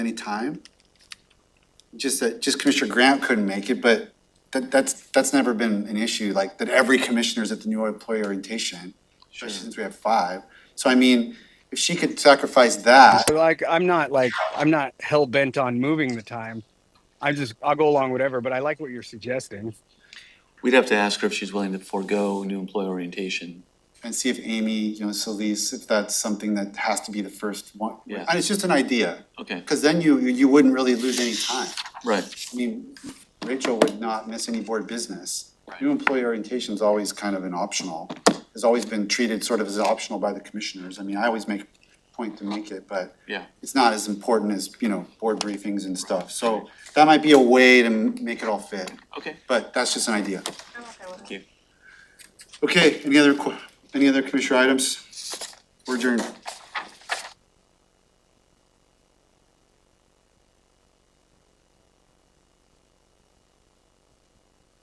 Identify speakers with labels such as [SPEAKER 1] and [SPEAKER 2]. [SPEAKER 1] any time. Just that, just Commissioner Grant couldn't make it, but that, that's, that's never been an issue, like, that every commissioner's at the new employee orientation, especially since we have five. So I mean, if she could sacrifice that,
[SPEAKER 2] But, like I'm not like I'm not hell bent on moving the time. I'm just I'll go along whatever. But I like what you're suggesting.
[SPEAKER 3] We'd have to ask her if she's willing to forego new employee orientation.
[SPEAKER 1] and see if Amy, you know, Solis, if that's something that has to be the first one.
[SPEAKER 3] Yeah.
[SPEAKER 1] And it's just an idea,
[SPEAKER 3] Okay,
[SPEAKER 1] because then you, you wouldn't really lose any time.
[SPEAKER 3] right.
[SPEAKER 1] I mean, Rachel would not miss any board business.
[SPEAKER 3] Right.
[SPEAKER 1] New employee orientation is always kind of an optional, has always been treated sort of as optional by the commissioners. I mean, I always make a point to make it, but
[SPEAKER 3] Yeah.
[SPEAKER 1] it's not as important as, you know, board briefings and stuff. So that might be a way to m- make it all fit,
[SPEAKER 3] Okay.
[SPEAKER 1] but that's just an idea.
[SPEAKER 4] I'm okay with
[SPEAKER 3] Thank you.
[SPEAKER 1] Okay, any other, que- any other commissioner items? We're adjourned.